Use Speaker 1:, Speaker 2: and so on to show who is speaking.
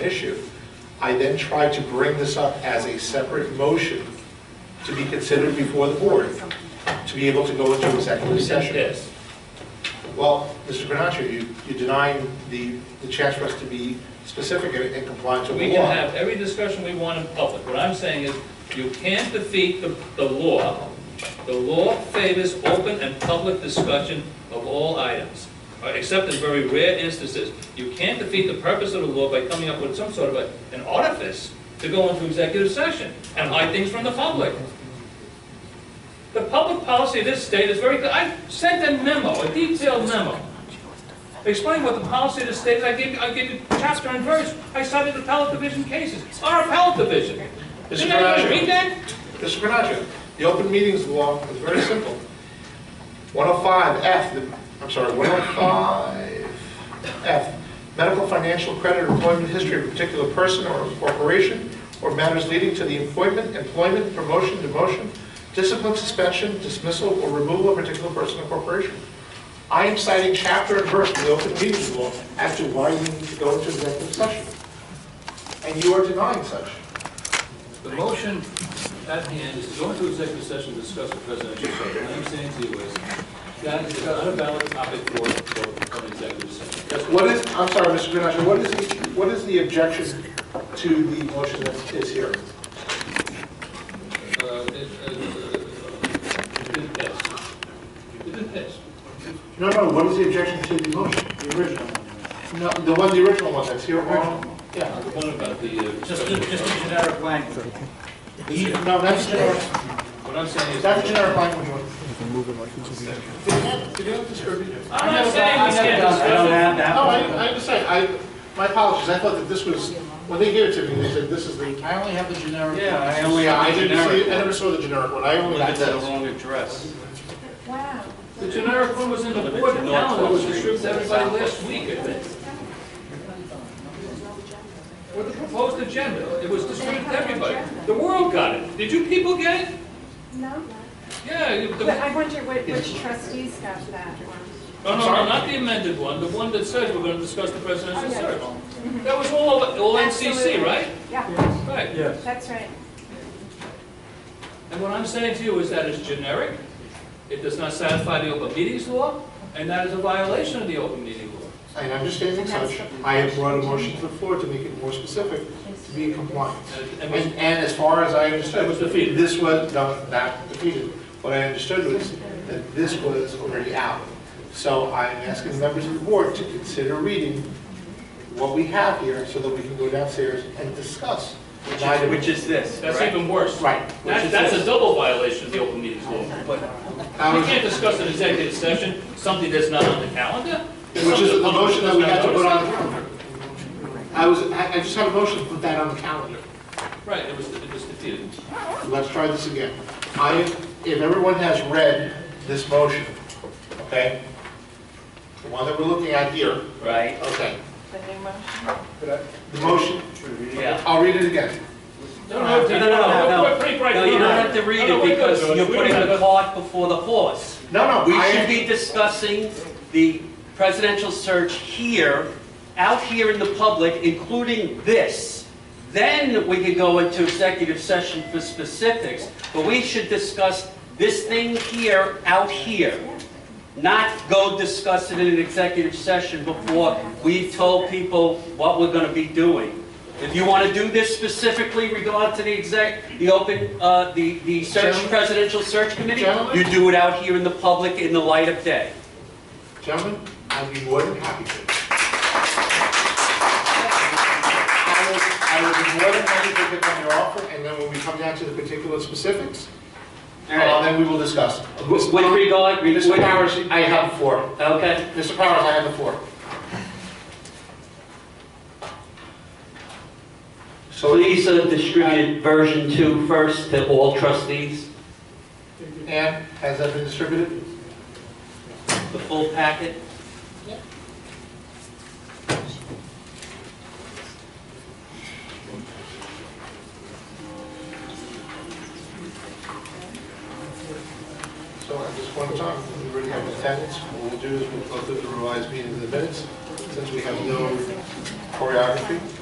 Speaker 1: issue. I then tried to bring this up as a separate motion to be considered before the board, to be able to go into executive session.
Speaker 2: Yes.
Speaker 1: Well, Mr. Granaccio, you, you denying the, the chance for us to be specific and and compliant to
Speaker 2: We
Speaker 1: the
Speaker 2: can
Speaker 1: law.
Speaker 2: have every discussion we want in public. What I'm saying is, you can't defeat the, the law. The law favors open and public discussion of all items, uh, except in very rare instances. You can't defeat the purpose of the law by coming up with some sort of a- an artifice to go into executive session and hide things from the public. The public policy of this state is very, clear. I sent a memo, a detailed memo, explain what the policy of the state is, I gave, I gave you chapter and verse, I cited the appellate division cases, our appellate division.
Speaker 1: Mr.
Speaker 2: Did anybody
Speaker 1: Carrasco.
Speaker 2: read that?
Speaker 1: Mr. Granaccio, the open meetings law is very simple. 105F, the- I'm sorry, 105F, medical, financial, credit, employment history of a particular person or corporation, or matters leading to the appointment, employment, promotion, demotion, discipline, suspension, dismissal, or removal of a particular person or corporation. I am citing chapter and verse of the open meetings law as to why you need to go into executive session. And you are denying such.
Speaker 3: The motion at hand is to go into executive session to discuss the presidential search. What I'm saying to you is, that is not a valid topic for, for an executive session. That's what
Speaker 1: What is, I'm sorry, Mr. Grenache, what is, the what is the objection to the motion that is here?
Speaker 3: uh, it, uh, it didn't pass. It didn't pass.
Speaker 1: No, no, what is the objection to the motion, the original? No, the one, the original one, that's here, original?
Speaker 3: The
Speaker 1: Yeah.
Speaker 3: one about the, uh,
Speaker 4: Just,
Speaker 3: special-
Speaker 4: just a generic language.
Speaker 1: No, that's generic,
Speaker 3: what I'm saying is.
Speaker 1: that's generic language one. They can't- they don't disturb you.
Speaker 2: I'm not saying
Speaker 4: I
Speaker 2: we
Speaker 4: never
Speaker 2: can't
Speaker 4: done- I
Speaker 2: discuss
Speaker 4: don't
Speaker 2: it.
Speaker 4: have
Speaker 1: No, I,
Speaker 4: that.
Speaker 1: I understand, I, my apologies, I thought that this was, when they gave it to me, they said this is the.
Speaker 4: I only have the generic.
Speaker 5: Yeah, I only
Speaker 1: Yeah, I
Speaker 5: have the
Speaker 1: didn't see, I
Speaker 5: generic.
Speaker 1: never saw the generic one, I only got
Speaker 5: Limited to the
Speaker 1: this.
Speaker 5: wrong address.
Speaker 6: Wow.
Speaker 2: The generic one was in the board calendar, it was distributed to everybody last week, I think. With the proposed agenda, it was distributed to everybody. The world got it. Did you people get it?
Speaker 6: No.
Speaker 2: Yeah, you- the-
Speaker 6: But I wonder whi- which trustees got that one.
Speaker 2: no, no, no, not the amended one, the one that says we're gonna discuss the presidential
Speaker 6: Oh, yeah.
Speaker 2: search. That was all, over- all NCC,
Speaker 6: Absolutely.
Speaker 2: right?
Speaker 6: Yeah,
Speaker 2: Right.
Speaker 6: that's right.
Speaker 2: And what I'm saying to you is that it's generic, it does not satisfy the open meetings law, and that is a violation of the open meeting law.
Speaker 1: And understanding such, I have brought a motion to the floor to make it more specific, to be in compliance.
Speaker 2: And-
Speaker 1: And,
Speaker 2: and-
Speaker 1: and as far as I understood.
Speaker 2: It was defeated.
Speaker 1: This was, no, not defeated. What I understood was that this was already out. So I'm asking the members of the board to consider reading what we have here so that we can go downstairs and discuss. Neither-
Speaker 5: Which is this,
Speaker 2: That's
Speaker 5: right?
Speaker 2: even worse.
Speaker 1: Right.
Speaker 2: That's, that's a double violation of the open meetings law.
Speaker 1: Um,
Speaker 2: We can't discuss an executive session, something that's not on the calendar.
Speaker 1: Which is the motion that we had to put on the
Speaker 2: Something
Speaker 1: calendar. I was, I I just had a motion to put that on the calendar.
Speaker 2: Right, it was, it was defeated.
Speaker 1: Let's try this again. I, if everyone has read this motion, okay? The one that we're looking at here,
Speaker 4: Right,
Speaker 1: okay?
Speaker 6: The new motion.
Speaker 1: The motion,
Speaker 4: yeah.
Speaker 1: I'll read it again.
Speaker 2: No, no,
Speaker 4: No, no, no, no.
Speaker 2: we're pretty bright.
Speaker 4: No, you don't have to read
Speaker 2: No,
Speaker 4: it
Speaker 2: no, we're good,
Speaker 4: because
Speaker 2: George.
Speaker 4: you're
Speaker 2: We
Speaker 4: putting
Speaker 2: don't
Speaker 4: the
Speaker 2: have-
Speaker 4: cart before the horse.
Speaker 1: No, no,
Speaker 4: We
Speaker 1: I-
Speaker 4: should be discussing the presidential search here, out here in the public, including this. Then we could go into executive session for specifics, but we should discuss this thing here, out here. Not go discuss it in an executive session before we told people what we're gonna be doing. If you wanna do this specifically regard to the exec, the open, uh, the, the search,
Speaker 1: Gentlemen.
Speaker 4: presidential search committee,
Speaker 1: Gentlemen.
Speaker 4: you do it out here in the public in the light of day.
Speaker 1: Gentlemen, I'd be more than happy to. I will, I will be more than happy to pick up your offer, and then when we come down to the particular specifics,
Speaker 4: All right.
Speaker 1: uh, then we will discuss.
Speaker 4: With regard, with-
Speaker 1: Mr. Powers, I have the floor.
Speaker 4: Okay,
Speaker 1: Mr. Powers, I have the floor. So,
Speaker 4: please uh, distribute version two first to all trustees,
Speaker 1: Ann, has that been distributed?
Speaker 4: the full packet.
Speaker 1: So at this point in time, we already have attendance. What we'll do is we'll go through the revised meeting in the minutes, since we have no choreography.